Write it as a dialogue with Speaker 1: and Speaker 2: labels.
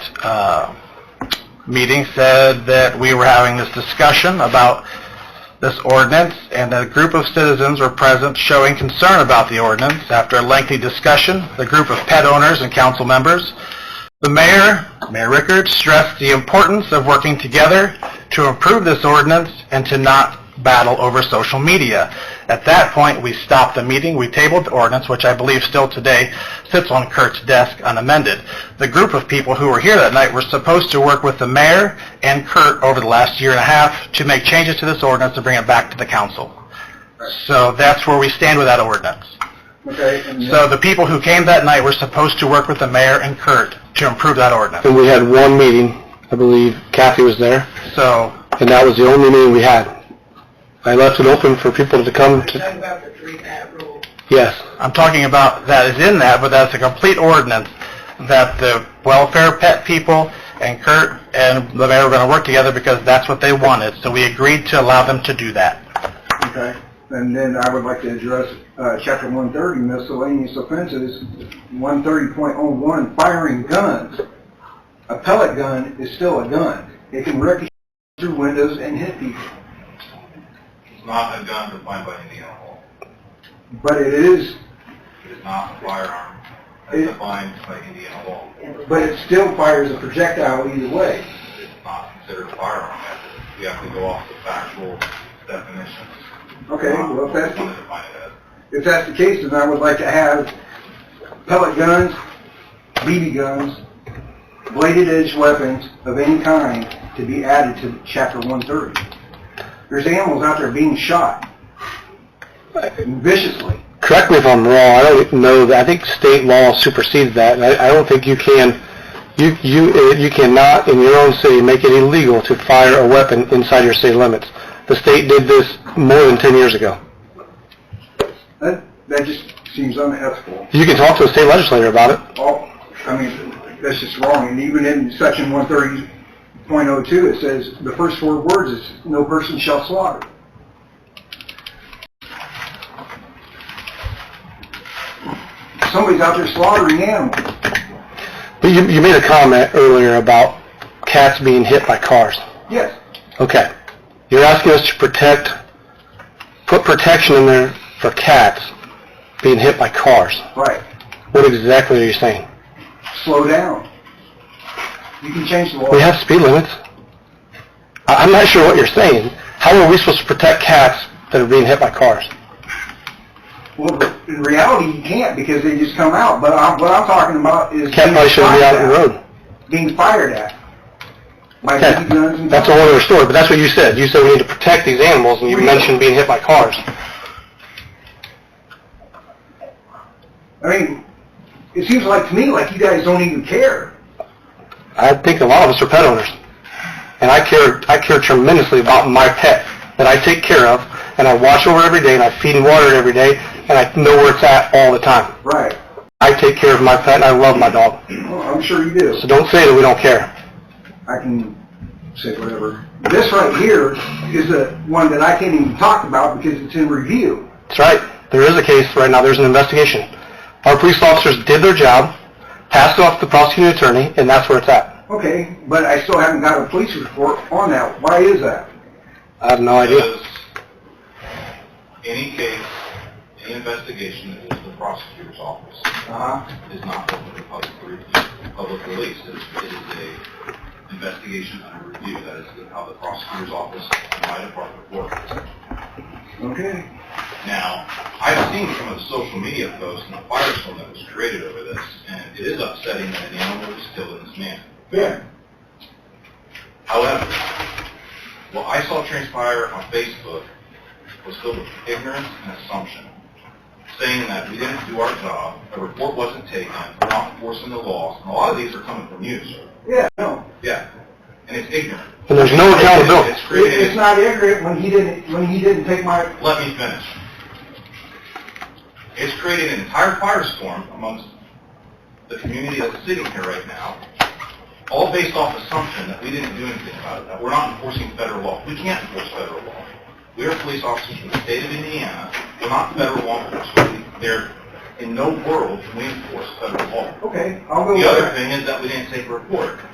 Speaker 1: uh, meeting said that we were having this discussion about this ordinance, and a group of citizens were present showing concern about the ordinance. After a lengthy discussion, the group of pet owners and council members, the mayor, Mayor Rickards, stressed the importance of working together to improve this ordinance and to not battle over social media. At that point, we stopped the meeting, we tabled the ordinance, which I believe still today sits on Kurt's desk unamended. The group of people who were here that night were supposed to work with the mayor and Kurt over the last year and a half to make changes to this ordinance and bring it back to the council. So that's where we stand with that ordinance.
Speaker 2: Okay, and
Speaker 1: So the people who came that night were supposed to work with the mayor and Kurt to improve that ordinance.
Speaker 3: And we had one meeting, I believe Kathy was there,
Speaker 1: So,
Speaker 3: and that was the only meeting we had. I left it open for people to come to,
Speaker 2: about the three hat rule.
Speaker 3: yes.
Speaker 1: I'm talking about that is in that, but that's a complete ordinance that the welfare pet people and Kurt and the mayor were going to work together because that's what they wanted. So we agreed to allow them to do that.
Speaker 2: Okay, and then I would like to address, uh, chapter one thirty miscellaneous offenses, one thirty point oh one, firing guns. A pellet gun is still a gun. It can ricochet through windows and hit people,
Speaker 4: It's not a gun defined by Indiana law.
Speaker 2: but it is,
Speaker 4: It is not a firearm
Speaker 2: It-
Speaker 4: as defined by Indiana law.
Speaker 2: but it still fires a projectile either way.
Speaker 4: It's not considered a firearm. We have to go off the factual definition.
Speaker 2: Okay, well, if that's,
Speaker 4: What they define it as.
Speaker 2: If that's the case, then I would like to have pellet guns, BB guns, bladed edge weapons of any kind to be added to chapter one thirty. There's animals out there being shot uh, viciously.
Speaker 3: Correct me if I'm wrong, I don't know, that- I think state law supersedes that, and I, I don't think you can, you, you, eh, you cannot in your own city make it illegal to fire a weapon inside your city limits. The state did this more than ten years ago.
Speaker 2: That, that just seems unethical.
Speaker 3: You can talk to a state legislator about it.
Speaker 2: All, Oh, I mean, that's just wrong. And even in section one thirty point oh two, it says, the first four words is, no person shall slaughter. Somebody's out there slaughtering animals.
Speaker 3: But you, you made a comment earlier about cats being hit by cars.
Speaker 2: Yes,
Speaker 3: Okay. You're asking us to protect, put protection in there for cats being hit by cars.
Speaker 2: right.
Speaker 3: What exactly are you saying?
Speaker 2: Slow down. You can change the law.
Speaker 3: We have speed limits. I, I'm not sure what you're saying. How are we supposed to protect cats that are being hit by cars?
Speaker 2: Well, in reality, you can't because they just come out. But I'm, what I'm talking about is
Speaker 3: Cat probably
Speaker 2: being
Speaker 3: shouldn't
Speaker 2: fired
Speaker 3: be out on the
Speaker 2: at.
Speaker 3: road.
Speaker 2: Being fired at. By BB guns
Speaker 3: Okay.
Speaker 2: and
Speaker 3: That's a whole other story, but that's what you said. You said we need to protect these animals, and you mentioned being hit by cars.
Speaker 2: I mean, it seems like to me like you guys don't even care.
Speaker 3: I think a lot of us are pet owners. And I care, I care tremendously about my pet that I take care of, and I watch over every day, and I feed and water it every day, and I know where it's at all the time.
Speaker 2: Right.
Speaker 3: I take care of my pet, and I love my dog.
Speaker 2: Well, I'm sure you do.
Speaker 3: So don't say that we don't care.
Speaker 2: I can say whatever. This right here is the one that I can't even talk about because it's in review.
Speaker 3: That's right. There is a case right now. There's an investigation. Our police officers did their job, passed it off to the prosecuting attorney, and that's where it's at.
Speaker 2: Okay, but I still haven't got a police report on that. Why is that?
Speaker 3: I have no idea.
Speaker 4: Because any case, any investigation that goes to the prosecutor's office
Speaker 2: Uh-huh.
Speaker 4: is not open to public review, public release. It's- It is a investigation under review. That is how the prosecutor's office and my department works.
Speaker 2: Okay.
Speaker 4: Now, I've seen some of the social media posts and the firestorm that was created over this, and it is upsetting that an animal was killed in this manner.
Speaker 2: Yeah.
Speaker 4: However, what I saw transpire on Facebook was filled with ignorance and assumption, saying that we didn't do our job, a report wasn't taken, we're not enforcing the law, and a lot of these are coming from you, sir.
Speaker 2: Yeah, no.
Speaker 4: Yeah, and it's ignorant.
Speaker 3: And there's no accountability.
Speaker 4: It's
Speaker 2: It- It's
Speaker 4: created,
Speaker 2: not ignorant when he didn't, when he didn't take my,
Speaker 4: let me finish. It's created an entire firestorm amongst the community that's sitting here right now, all based off assumption that we didn't do anything about it, that we're not enforcing federal law. We can't enforce federal law. We are police officers from the state of Indiana. We're not federal law enforcement. There, in no world can we enforce federal law.
Speaker 2: okay, I'll go
Speaker 4: The
Speaker 2: with
Speaker 4: other
Speaker 2: that.
Speaker 4: thing is that we didn't take a report.